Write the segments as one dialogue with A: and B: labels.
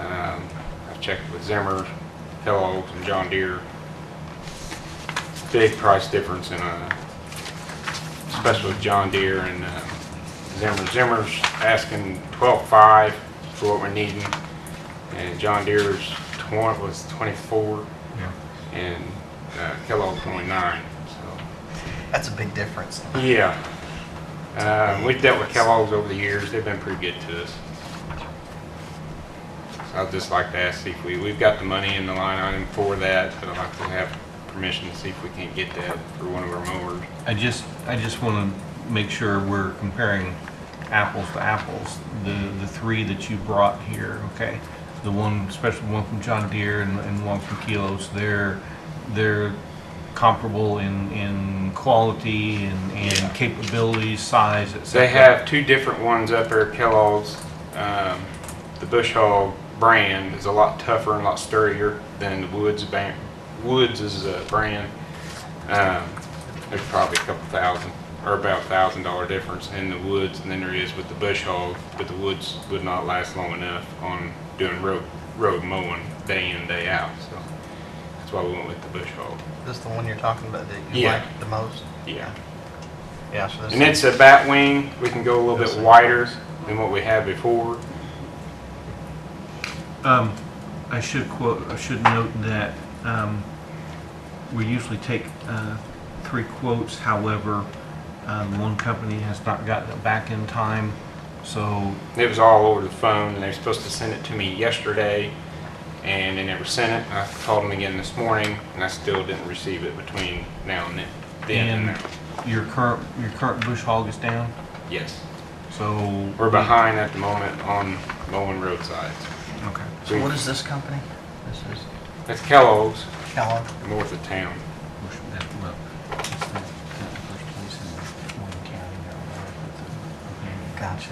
A: Um, checked with Zimmer, Kellogg's, and John Deere. Big price difference in a, especially with John Deere and uh, Zimmer. Zimmer's asking twelve-five for what we're needing, and John Deere's twen- was twenty-four,
B: Yeah.
A: and uh, Kellogg's only nine, so.
C: That's a big difference.
A: Yeah. Uh, We've dealt with Kellogg's over the years. They've been pretty good to us. So I'd just like to ask if we, we've got the money in the line item for that, but I'd like to have permission to see if we can get that for one of our mowers.
B: I just, I just want to make sure we're comparing apples to apples. The, the three that you brought here, okay? The one, especially one from John Deere and, and one from Kilos, they're, they're comparable in, in quality and,
A: Yeah.
B: and capabilities, size, et cetera.
A: They have two different ones up there, Kellogg's. Um, The Bush Hog brand is a lot tougher and a lot sturdier than the Woods brand. Woods is a brand. Um, There's probably a couple thousand, or about a thousand dollar difference in the Woods than there is with the Bush Hog, but the Woods would not last long enough on doing road, road mowing day in, day out, so that's why we went with the Bush Hog.
C: This the one you're talking about that you
A: Yeah.
C: like the most?
A: Yeah.
C: Yeah, so this
A: And it's a bat wing, we can go a little bit wider than what we had before.
B: Um, I should quote, I should note that, um, we usually take, uh, three quotes, however, um, one company has not gotten it back in time, so,
A: It was all over the phone, and they were supposed to send it to me yesterday, and they never sent it. I called them again this morning, and I still didn't receive it between now and then. Then and
B: and
A: now.
B: your current, your current bush hog is down,
A: Yes.
B: so.
A: We're behind at the moment on mowing roadsides.
B: Okay.
C: so what is this company? This is
A: That's Kellogg's,
C: Kellogg.
A: north of town.
B: Bush- that- well, it's the- that first place in Wayne County, Maryland, but the-
C: Gotcha.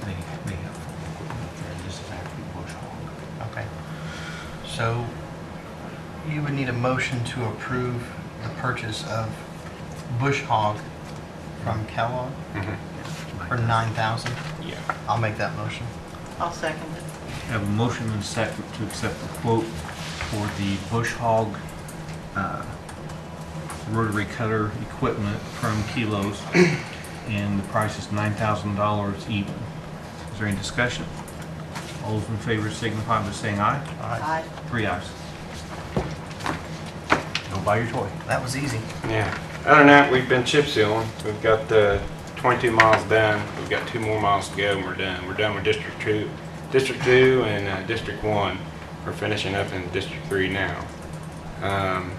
B: They, they have, this is actually bush hog.
C: Okay. So you would need a motion to approve the purchase of Bush Hog from Kellogg
A: Mhm.
C: for nine thousand.
A: Yeah.
C: I'll make that motion.
D: I'll second it.
B: Have a motion and second to accept the quote for the Bush Hog uh, rotary cutter equipment from Kilos, and the price is $9,000 even. Is there any discussion? All those in favor signify by saying aye.
D: Aye.
B: Three ayes. Go buy your toy.
C: That was easy.
A: Yeah. Other than that, we've been chip sealing. We've got the 22 miles done. We've got two more miles to go, and we're done. We're done with District Two, District Two, and uh, District One. We're finishing up in District Three now. Um,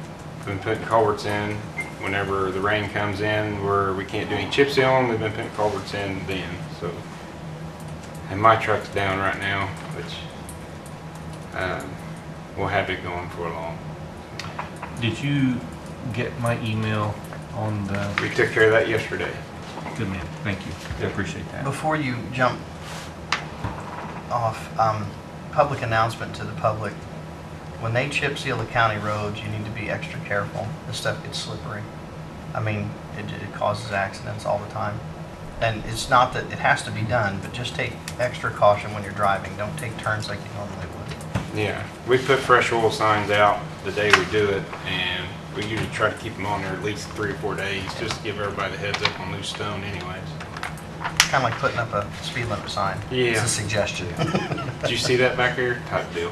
A: been putting culverts in. Whenever the rain comes in, where we can't do any chip sealing, we've been putting culverts in then. So, and my truck's down right now, which um, we'll have it going for long.
B: Did you get my email on the,
A: We took care of that yesterday.
B: good man, thank you. I appreciate that.
C: Before you jump off, um, public announcement to the public. When they chip seal the county roads, you need to be extra careful. This stuff gets slippery. I mean, it, it causes accidents all the time. And it's not that it has to be done, but just take extra caution when you're driving. Don't take turns like you normally would.
A: Yeah, we put fresh oil signs out the day we do it, and we usually try to keep them on there at least three or four days, just to give everybody the heads up on loose stone anyways.
C: It's kind of like putting up a speed limit sign. It's
A: Yeah.
C: a suggestion.
A: Did you see that back there? Type deal.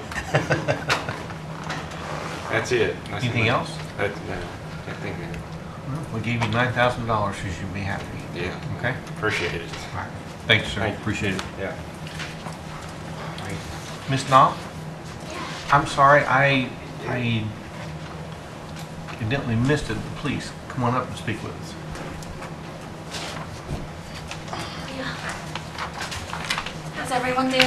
A: That's it. That's
B: Anything
A: it.
B: else?
A: That, no, I think, that-
B: Well, We gave you $9,000, you should be happy.
A: yeah,
B: Okay?
A: appreciate it.
B: Thanks, sir.
A: Thank you.
B: Appreciate it.
A: Yeah.
B: Miss Knopf? I'm sorry, I, I evidently missed it. Please, come on up and speak with us.
E: How's everyone doing?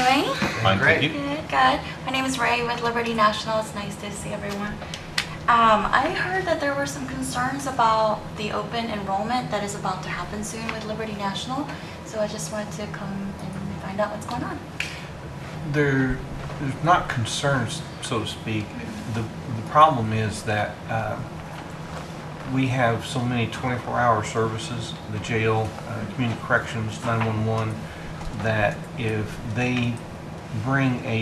B: Fine, thank
C: Great.
B: you.
E: Good, good. My name is Ray with Liberty National. It's nice to see everyone. Um, I heard that there were some concerns about the open enrollment that is about to happen soon with Liberty National. So I just wanted to come and find out what's going on.
B: There, there's not concerns, so to speak. The, the problem is that uh, we have so many 24-hour services, the jail, uh, community corrections, 911, that if they bring a